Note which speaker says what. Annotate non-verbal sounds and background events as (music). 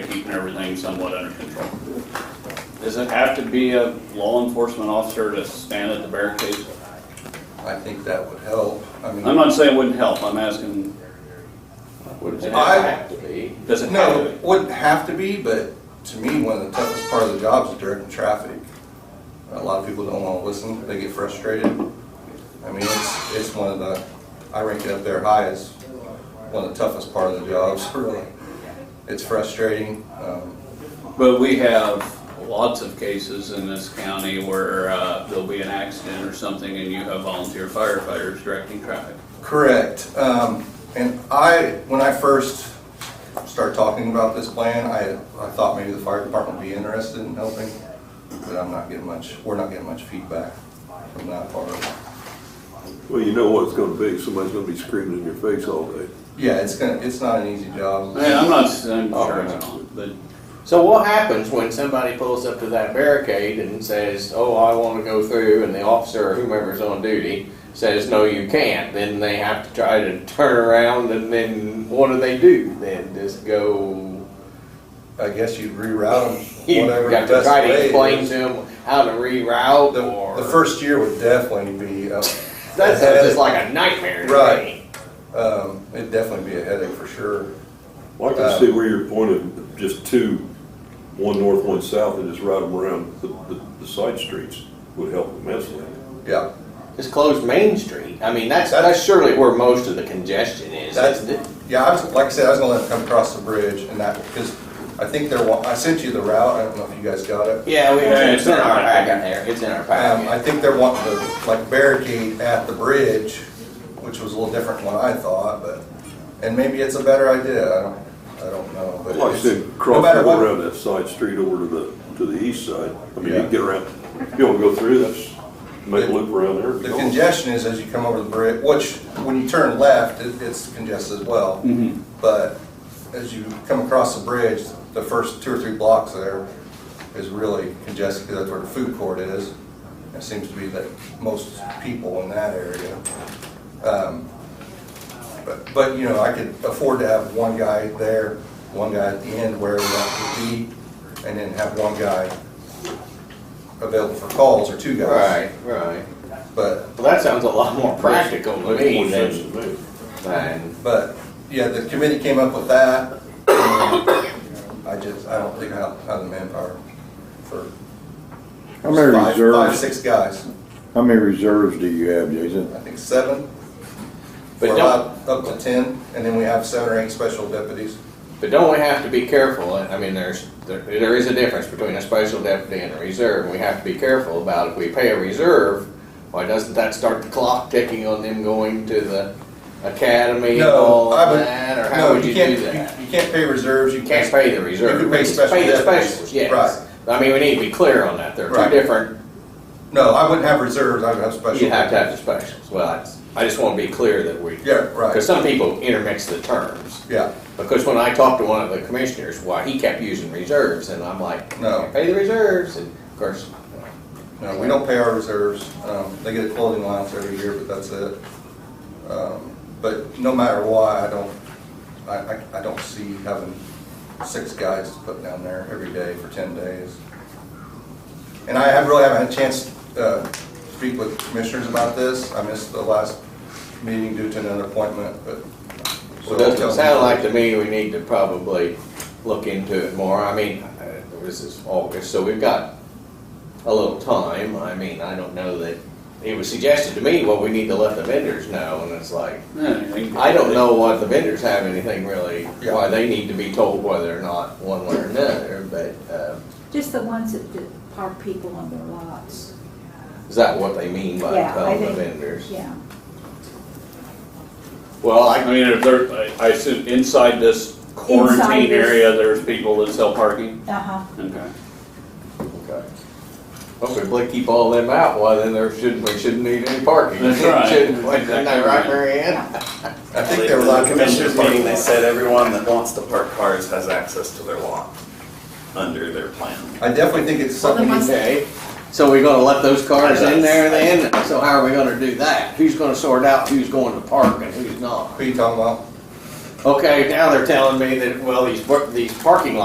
Speaker 1: keeping everything somewhat under control. Does it have to be a law enforcement officer to stand at the barricades?
Speaker 2: I think that would help. I mean,
Speaker 1: I'm not saying it wouldn't help, I'm asking,
Speaker 3: Would it
Speaker 2: I-
Speaker 3: have to be?
Speaker 1: does it have
Speaker 2: no,
Speaker 1: to?
Speaker 2: it wouldn't have to be, but to me, one of the toughest part of the job is directing traffic. A lot of people don't want to listen, they get frustrated. I mean, it's, it's one of the, I rank it up there high as one of the toughest part of the jobs, really. It's frustrating. um,
Speaker 1: But we have lots of cases in this county where uh, there'll be an accident or something and you have volunteer firefighters directing traffic.
Speaker 2: Correct. Um, and I, when I first started talking about this plan, I, I thought maybe the fire department would be interested in helping, but I'm not getting much, we're not getting much feedback from that part.
Speaker 4: Well, you know what it's gonna be, somebody's gonna be screaming in your face all day.
Speaker 2: Yeah, it's gonna, it's not an easy job.
Speaker 1: I mean, I'm not, I'm sure it's not, but
Speaker 3: So what happens when somebody pulls up to that barricade and says, oh, I want to go through, and the officer or whomever's on duty says, no, you can't, then they have to try to turn around, and then what do they do? Then just go,
Speaker 2: I guess you reroute them,
Speaker 3: (laughs) you
Speaker 2: whatever the
Speaker 3: got to
Speaker 2: best
Speaker 3: try to
Speaker 2: way
Speaker 3: explain to
Speaker 2: is.
Speaker 3: them how to reroute,
Speaker 2: The,
Speaker 3: or.
Speaker 2: the first year would definitely be, uh,
Speaker 3: That sounds just like a nightmare to
Speaker 2: Right.
Speaker 3: me.
Speaker 2: um, it'd definitely be a headache for sure.
Speaker 4: Well, I
Speaker 2: Uh,
Speaker 4: can see where you're pointing, just two, one north, one south, and just ride them around the, the, the side streets would help immensely.
Speaker 2: Yeah,
Speaker 3: Just close Main Street. I mean, that's,
Speaker 2: That's-
Speaker 3: that's surely where most of the congestion is.
Speaker 2: That's,
Speaker 3: That's-
Speaker 2: yeah, I was, like I said, I was gonna let them come across the bridge and that, because I think they're, wa- I sent you the route, I don't know if you guys got it.
Speaker 3: Yeah, we,
Speaker 1: Yeah,
Speaker 3: it's in our packet there. It's in our
Speaker 2: Um, I
Speaker 3: packet.
Speaker 2: think they're wanting to, like barricade at the bridge, which was a little different than what I thought, but, and maybe it's a better idea, I don't, I don't know, but.
Speaker 4: Like I
Speaker 2: it's-
Speaker 4: said,
Speaker 2: no
Speaker 4: cross
Speaker 2: matter
Speaker 4: over
Speaker 2: what,
Speaker 4: around that side street over to the, to the east side. I mean, you
Speaker 2: Yeah.
Speaker 4: can get around, if you wanna go through this, make a loop around there.
Speaker 2: The
Speaker 4: go.
Speaker 2: congestion is as you come over the bridge, which, when you turn left, it, it's congested as well. But as you come across the bridge, the first two or three blocks there is really congested, because that's where the food court is. It seems to be that most people in that area. Um, But, but, you know, I could afford to have one guy there, one guy at the end where we want to be, and then have one guy available for calls, or two guys.
Speaker 3: Right, right.
Speaker 2: But
Speaker 3: Well, that sounds a lot more practical to
Speaker 4: Makes
Speaker 3: me
Speaker 4: more sense
Speaker 3: than,
Speaker 4: to me.
Speaker 3: than,
Speaker 2: But, yeah, the committee came up with that. and I just, I don't think I have, have the manpower for
Speaker 5: How many
Speaker 2: five, five,
Speaker 5: reserves,
Speaker 2: six guys.
Speaker 5: how many reserves do you have, Jason?
Speaker 2: I think seven.
Speaker 3: But
Speaker 2: We're
Speaker 3: don't-
Speaker 2: allowed up to ten, and then we have seven or eight special deputies.
Speaker 3: but don't we have to be careful? I mean, there's, there, there is a difference between a special deputy and a reserve. We have to be careful about if we pay a reserve, why doesn't that start the clock ticking on them going to the academy and all
Speaker 2: No, I
Speaker 3: of
Speaker 2: would,
Speaker 3: that? Or how
Speaker 2: no,
Speaker 3: would
Speaker 2: you
Speaker 3: you do
Speaker 2: can't,
Speaker 3: that?
Speaker 2: you you can't pay reserves, you
Speaker 3: You
Speaker 2: can't.
Speaker 3: can't pay the reserve.
Speaker 2: You can pay special
Speaker 3: Pay the
Speaker 2: deputies.
Speaker 3: specials, yes. I mean, we need to be clear on that. There are
Speaker 2: Right.
Speaker 3: two different,
Speaker 2: No, I wouldn't have reserves, I would have special.
Speaker 3: you have to have the specials. Well, I- I just want to be clear that we.
Speaker 2: Yeah, right.
Speaker 3: Because some people intermix the terms.
Speaker 2: Yeah,
Speaker 3: Because when I talked to one of the commissioners, why, he kept using reserves, and I'm like,
Speaker 2: No.
Speaker 3: "Can't pay the reserves, and of course,
Speaker 2: no, Uh, we don't pay our reserves. Um, they get a clothing allowance every year, but that's it. Um, But no matter why, I don't, I, I, I don't see having six guys to put down there every day for ten days. And I have, really haven't had a chance uh, to speak with commissioners about this. I missed the last meeting due to another appointment, but. so
Speaker 3: Well, it
Speaker 2: tell
Speaker 3: doesn't
Speaker 2: me-
Speaker 3: sound like to me we need to probably look into it more. I mean, uh, this is August, so we've got a little time. I mean, I don't know that, it was suggested to me, well, we need to let the vendors know, and it's like, I don't know what the vendors have anything really,
Speaker 2: Yeah.
Speaker 3: why they need to be told whether or not one way or another, but, uh,
Speaker 6: Just the ones that that park people on their lots.
Speaker 3: is that what they mean by
Speaker 6: Yeah, I
Speaker 3: telling the
Speaker 6: think-
Speaker 3: vendors?
Speaker 6: Yeah.
Speaker 3: Well,
Speaker 1: I
Speaker 3: I,
Speaker 1: mean, if there, I- I assume inside this quarantine
Speaker 6: Inside this-
Speaker 1: area, there's people that sell parking?
Speaker 6: Uh-huh.
Speaker 1: Okay.
Speaker 3: okay. Well, if we keep all them out, why then there shouldn't, we shouldn't need any parking. (laughs)
Speaker 1: That's right.
Speaker 3: Shouldn't we? Isn't that right, Mary Ann?
Speaker 2: I think there
Speaker 7: At
Speaker 2: were a lot
Speaker 7: the
Speaker 2: of
Speaker 7: commissioners
Speaker 2: commissioners.
Speaker 7: meeting, they said everyone that wants to park cars has access to their lot under their plan.
Speaker 2: I definitely think it's something.
Speaker 3: Okay, so we're gonna let those cars in there then? So how are we gonna do that? Who's gonna sort out who's going to park and who's not?
Speaker 2: Who you talking about?
Speaker 3: Okay, now they're telling me that, well, these, par- these parking lots